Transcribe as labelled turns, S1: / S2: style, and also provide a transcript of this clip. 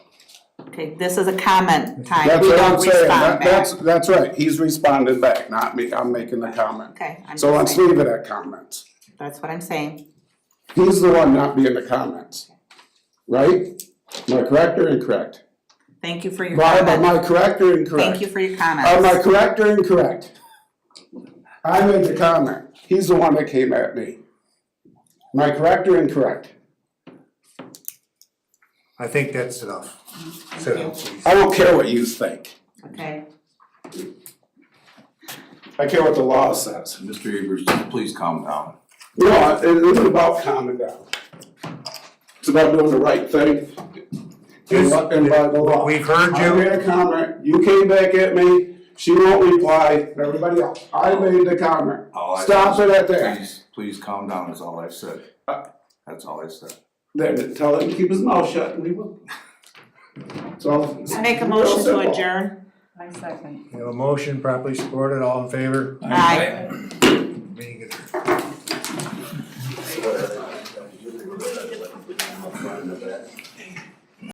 S1: Okay, this is a comment time,
S2: That's
S1: we
S2: what I'm
S1: don't
S2: saying,
S1: respond
S2: that,
S1: back.
S2: that's, that's right, he's responding back, not me, I'm making a comment.
S1: Okay, I'm
S2: So
S1: just
S2: let's
S1: saying,
S2: leave it at comments.
S1: that's what I'm saying,
S2: He's the one not being the comments, right? Am I correct or incorrect?
S1: thank you for your
S2: Barb, am
S1: comment,
S2: I correct or incorrect?
S1: thank you for your
S2: Am I
S1: comments,
S2: correct or incorrect? I made the comment, he's the one that came at me. Am I correct or incorrect?
S3: I think that's enough. Sit down, please.
S2: I don't care what you think,
S1: okay?
S2: I care what the law says.
S4: Mr. Evers, please calm down.
S2: No, it isn't about calming down. It's about doing the right thing. And
S3: This-
S2: by- and by the law.
S3: We've heard
S2: I
S3: you,
S2: made a comment, you came back at me, she won't reply, and everybody else, I made the comment.
S3: Oh,
S4: All I-
S2: Stop it Uh, at that.
S4: Please, please calm down is all I've said. That's all I said.
S2: Then tell him to keep his mouth shut and we will. So.
S1: I Make a motion to
S2: Simple.
S1: adjourn,
S5: I second.
S3: We have a motion properly supported, all in favor?
S1: aye.
S3: Meeting adjourned.